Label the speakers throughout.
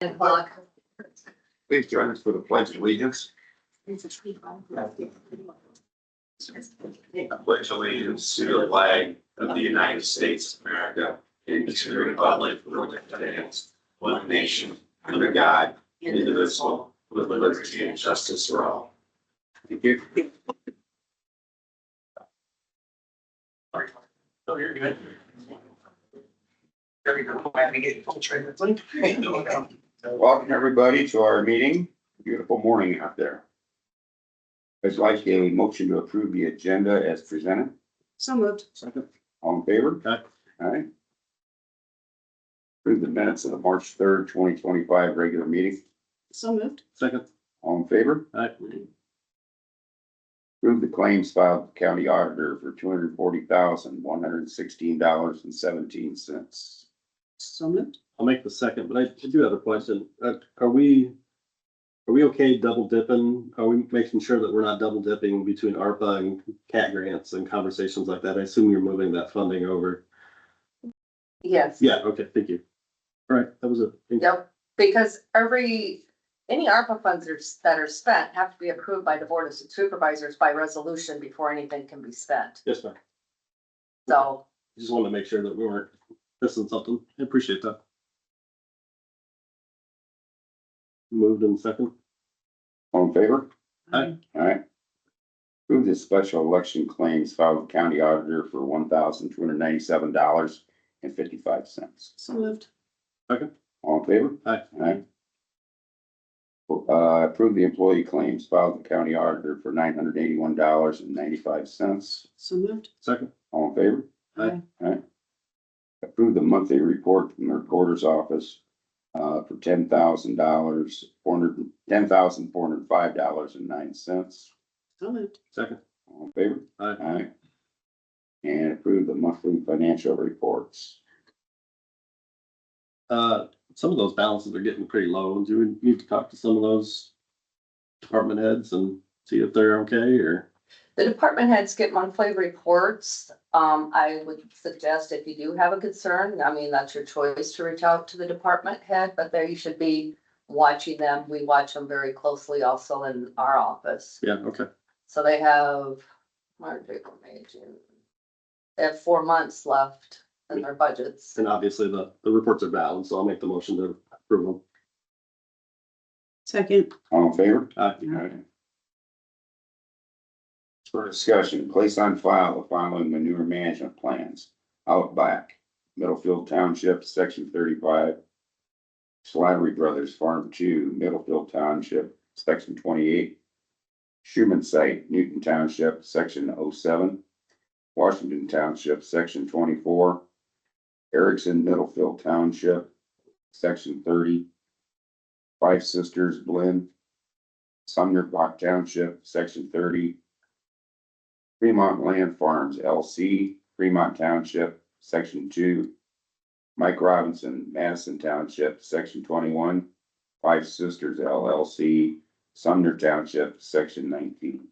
Speaker 1: Ten o'clock.
Speaker 2: Please join us for the pledge of allegiance.
Speaker 3: I pledge allegiance to the flag of the United States of America and to the republic for which it stands, one nation, under God, indivisible, with liberty and justice for all.
Speaker 2: Thank you.
Speaker 3: Oh, you're good.
Speaker 4: There we go. I had to get full trailer.
Speaker 2: Welcome, everybody, to our meeting. Beautiful morning out there. I'd like a motion to approve the agenda as presented.
Speaker 1: So moved.
Speaker 2: Second. All in favor?
Speaker 3: Aye.
Speaker 2: Aye. Approve the minutes of the March third, twenty twenty-five regular meeting.
Speaker 1: So moved.
Speaker 3: Second.
Speaker 2: All in favor? Approve the claims filed with the county auditor for two hundred forty thousand, one hundred sixteen dollars and seventeen cents.
Speaker 1: So moved.
Speaker 5: I'll make the second, but I do have a question. Uh, Are we, are we okay double dipping? Are we making sure that we're not double dipping between ARPA and CAT grants and conversations like that? I assume you're moving that funding over.
Speaker 6: Yes,
Speaker 5: Yeah, okay, thank you. All right, that was a,
Speaker 6: yep, because every, any ARPA funds that are, that are spent have to be approved by the Board of Supervisors by resolution before anything can be spent.
Speaker 5: yes, ma'am.
Speaker 6: So,
Speaker 5: Just wanted to make sure that we weren't missing something. I appreciate that. Moved in second.
Speaker 2: All in favor?
Speaker 1: Mm-hmm.
Speaker 5: Aye.
Speaker 2: Alright. Approve the special election claims filed with county auditor for one thousand two hundred ninety-seven dollars and fifty-five cents.
Speaker 1: So moved.
Speaker 2: All in favor?
Speaker 5: Aye.
Speaker 2: Aye. Uh, approve the employee claims filed with the county auditor for nine hundred eighty-one dollars and ninety-five cents.
Speaker 1: So moved.
Speaker 5: Second,
Speaker 2: All in favor?
Speaker 5: Aye.
Speaker 2: Approve the monthly report from the recorder's office uh, for ten thousand dollars, four hundred, ten thousand four hundred five dollars and nine cents.
Speaker 1: So moved.
Speaker 5: second,
Speaker 2: All in favor?
Speaker 5: Aye.
Speaker 2: And approve the monthly financial reports.
Speaker 5: Uh, some of those balances are getting pretty low. Do we need to talk to some of those department heads and see if they're okay or?
Speaker 6: the department heads get monthly reports. Um, I would suggest if you do have a concern, I mean, that's your choice to reach out to the department head, but there you should be watching them. We watch them very closely also in our office.
Speaker 5: Yeah, okay.
Speaker 6: So they have March, April, May, June. They have four months left in their budgets.
Speaker 5: And obviously the, the reports are valid, so I'll make the motion to approve them.
Speaker 1: Second.
Speaker 2: All in favor?
Speaker 5: Aye.
Speaker 2: Alright. For discussion, place on file the following manure management plans. Outback, Middlefield Township, section thirty-five. Slattery Brothers Farm Two, Middlefield Township, section twenty-eight. Schuman Site, Newton Township, section 07. Washington Township, section twenty-four. Erickson Middlefield Township, section thirty. Five Sisters Blend, Sumner Block Township, section thirty. Fremont Land Farms LC, Fremont Township, section two. Mike Robinson, Madison Township, section twenty-one. Five Sisters LLC, Sumner Township, section nineteen.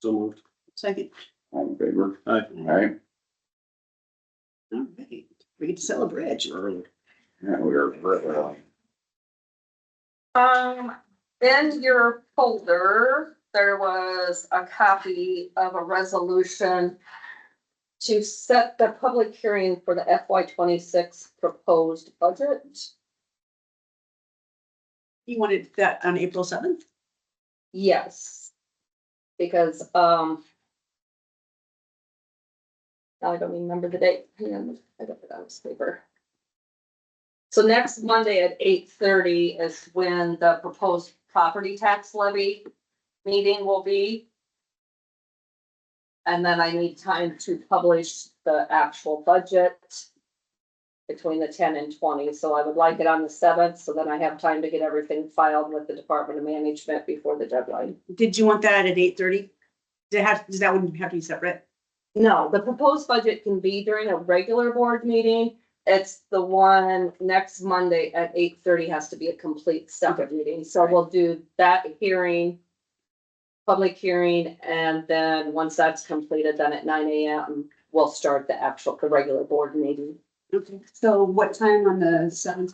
Speaker 5: So moved.
Speaker 1: Second.
Speaker 2: All in favor?
Speaker 5: Aye.
Speaker 2: All right,
Speaker 1: All right. We get to celebrate.
Speaker 5: Early.
Speaker 2: yeah, we are.
Speaker 6: Um, in your folder, there was a copy of a resolution to set the public hearing for the FY twenty-six proposed budget.
Speaker 1: You wanted that on April seventh?
Speaker 6: Yes. Because, um. now I don't remember the date. Hang on, I got it on this paper. So next Monday at eight thirty is when the proposed property tax levy meeting will be. And then I need time to publish the actual budget between the ten and twenty, so I would like it on the seventh, so then I have time to get everything filed with the Department of Management before the deadline.
Speaker 1: Did you want that at eight thirty? Did it have, does that one have to be separate?
Speaker 6: No, the proposed budget can be during a regular board meeting. It's the one next Monday at eight thirty has to be a complete separate meeting, so we'll do that hearing. Public hearing, and then once that's completed, then at nine AM, we'll start the actual, the regular board meeting.
Speaker 1: Okay. So what time on the seventh?